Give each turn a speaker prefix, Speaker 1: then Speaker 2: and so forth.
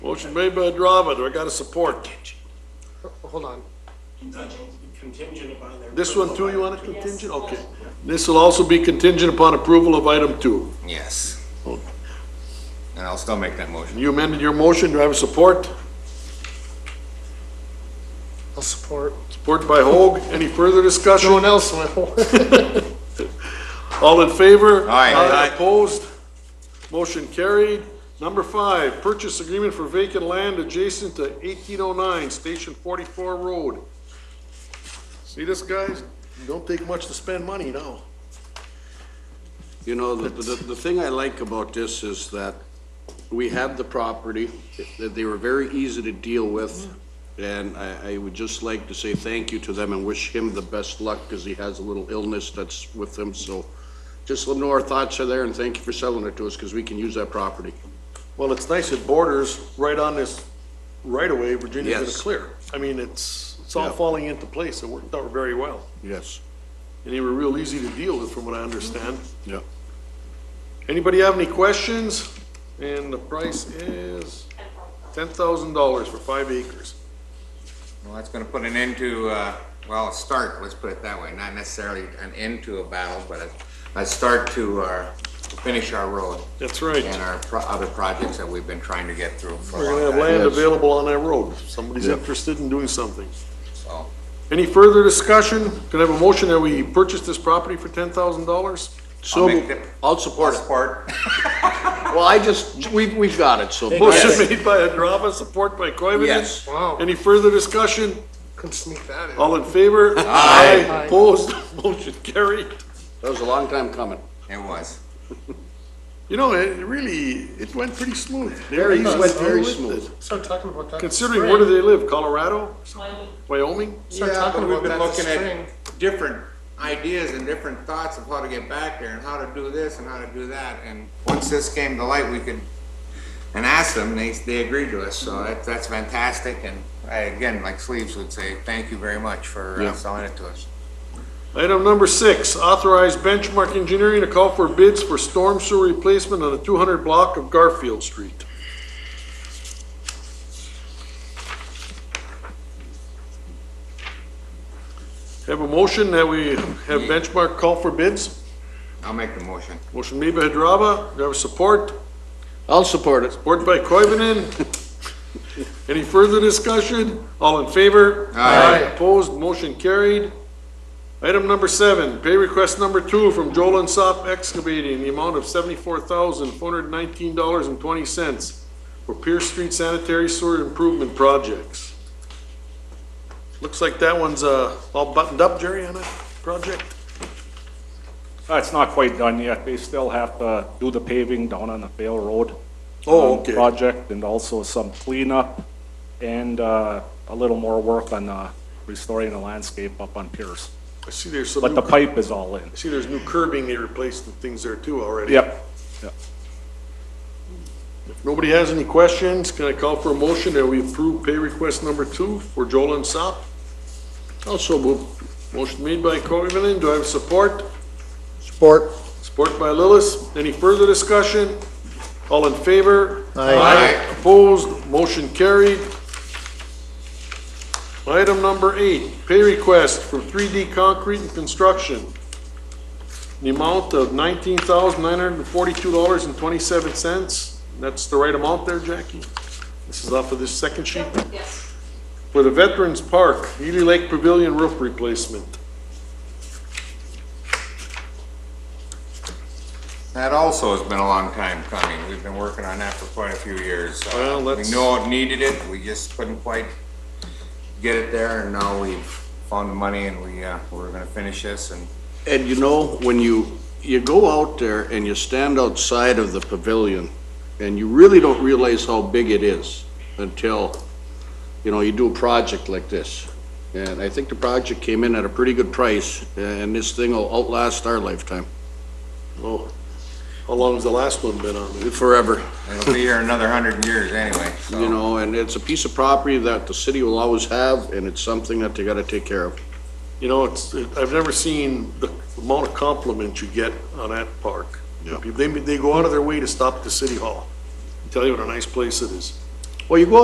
Speaker 1: Motion made by Adrama, do I got a support?
Speaker 2: Hold on.
Speaker 3: Contingent upon their.
Speaker 1: This one too, you want a contingent? Okay. This will also be contingent upon approval of item two.
Speaker 4: Yes,
Speaker 1: Oh,
Speaker 4: and I'll still make that motion.
Speaker 1: You amended your motion, do I have a support?
Speaker 2: I'll support.
Speaker 1: Support by Hoag, any further
Speaker 2: No one
Speaker 1: discussion?
Speaker 2: else will.
Speaker 1: All in favor?
Speaker 4: Aye. Aye.
Speaker 1: Opposed? Motion carried. Number five, purchase agreement for vacant land adjacent to 1809 Station 44 Road. See this, guys? Don't take much to spend money now.
Speaker 5: You know, the, the, the thing I like about this is that we have the property, that they were very easy to deal with. And I, I would just like to say thank you to them and wish him the best luck because he has a little illness that's with him, so just let him know our thoughts are there and thank you for selling it to us because we can use that property.
Speaker 1: Well, it's nice it borders right on this right-of-way Virginia's gonna
Speaker 5: Yes.
Speaker 1: clear. I mean, it's, it's all
Speaker 5: Yeah.
Speaker 1: falling into place. It worked out very well.
Speaker 5: Yes.
Speaker 1: And they were real easy to deal with, from what I understand.
Speaker 5: Yeah.
Speaker 1: Anybody have any questions? And the price is ten thousand dollars for five acres.
Speaker 4: Well, that's gonna put an end to, uh, well, a start, let's put it that way, not necessarily an end to a battle, but a, a start to our, to finish our road
Speaker 1: That's
Speaker 4: and
Speaker 1: right.
Speaker 4: our pro- other projects that we've been trying to get through for
Speaker 1: We're gonna
Speaker 4: a
Speaker 1: have
Speaker 4: long time.
Speaker 1: land
Speaker 5: Yes.
Speaker 1: available on that road. If Somebody's
Speaker 5: Yeah.
Speaker 1: interested in doing something.
Speaker 4: So,
Speaker 1: Any further discussion? Can I have a motion that we purchase this property for ten thousand dollars?
Speaker 5: So,
Speaker 4: make the-
Speaker 5: I'll support it.
Speaker 4: Support.
Speaker 5: Well, I just, we, we've got it, so.
Speaker 1: Motion made by Adrava, support by Coivinon.
Speaker 4: Yes.
Speaker 2: Wow.
Speaker 1: Any further discussion?
Speaker 2: Couldn't sneak that in.
Speaker 1: All in favor? Aye. Opposed? Motion carried.
Speaker 5: That was a long time coming.
Speaker 4: It was.
Speaker 1: You know, it really, it went pretty smooth.
Speaker 5: Very,
Speaker 1: easy.
Speaker 5: went very smooth.
Speaker 2: Start talking about that.
Speaker 1: Considering where do they live? Colorado? Wyoming?
Speaker 2: Start talking
Speaker 4: We've
Speaker 2: about
Speaker 4: been
Speaker 2: that this
Speaker 4: looking
Speaker 2: spring.
Speaker 4: at different ideas and different thoughts of how to get back there and how to do this and how to do that. And once this came to light, we could, and asked them, they, they agreed to us. So that, that's fantastic. And I, again, like Sleeves would say, thank you very much for uh,
Speaker 5: Yeah.
Speaker 4: selling it to us.
Speaker 1: Item number six, authorize benchmark engineering to call for bids for storm sewer replacement on the 200 block of Garfield Street. Have a motion that we have benchmark call for bids.
Speaker 4: I'll make the motion.
Speaker 1: Motion made by Hadrava, do I have support?
Speaker 5: I'll support it.
Speaker 1: Support by Koivunen. Any further discussion? All in favor?
Speaker 4: Aye.
Speaker 1: Opposed, motion carried. Item number seven, pay request number two from Joel and Sop Excavating, in the amount of seventy-four thousand, four hundred nineteen dollars and twenty cents for Pierce Street Sanitary Sewer Improvement Projects. Looks like that one's, uh, all buttoned up, Jerry, on that project?
Speaker 3: Uh, It's not quite done yet. They still have to do the paving down on the Vale Road.
Speaker 1: Oh,
Speaker 3: um,
Speaker 1: okay.
Speaker 3: Project and also some cleanup and uh, a little more work on uh, restoring the landscape up on Pierce.
Speaker 1: I see there's some,
Speaker 3: But the
Speaker 1: new- I
Speaker 3: pipe is all in.
Speaker 1: see there's new curbing they replaced and things there too already.
Speaker 3: Yep, yep.
Speaker 1: Nobody has any questions? Can I call for a motion that we approve pay request number two for Joel and Sop?
Speaker 5: Also move.
Speaker 1: Motion made by Coivinon, do I have support?
Speaker 5: Support.
Speaker 1: Support by Lillis. Any further discussion? All in favor?
Speaker 4: Aye.
Speaker 1: Opposed, motion carried. Item number eight, pay request for 3D Concrete and Construction. The amount of $19,942.27. That's the right amount there, Jackie? This is off of this second sheet?
Speaker 6: Yes.
Speaker 1: For the Veterans Park, Ely Lake Pavilion roof replacement.
Speaker 4: That also has been a long time coming. We've been working on that for quite a few years. Uh,
Speaker 1: Well,
Speaker 4: We
Speaker 1: let's-
Speaker 4: know it needed it. We just couldn't quite get it there. And now we've found the money and we, uh, we're gonna finish this and
Speaker 5: And you know, when you, you go out there and you stand outside of the pavilion, and you really don't realize how big it is until, you know, you do a project like this. And I think the project came in at a pretty good price, and this thing will outlast our lifetime
Speaker 1: Oh, how long has the last one been on?
Speaker 5: forever,
Speaker 4: It'll be here another hundred years anyway, so.
Speaker 5: you know, and it's a piece of property that the city will always have, and it's something that they gotta take care of.
Speaker 1: You know, it's, I've never seen the amount of compliments you get on that park.
Speaker 5: Yeah.
Speaker 1: They, they go out of their way to stop the city hall. Tell you what a nice place it is. Well, you go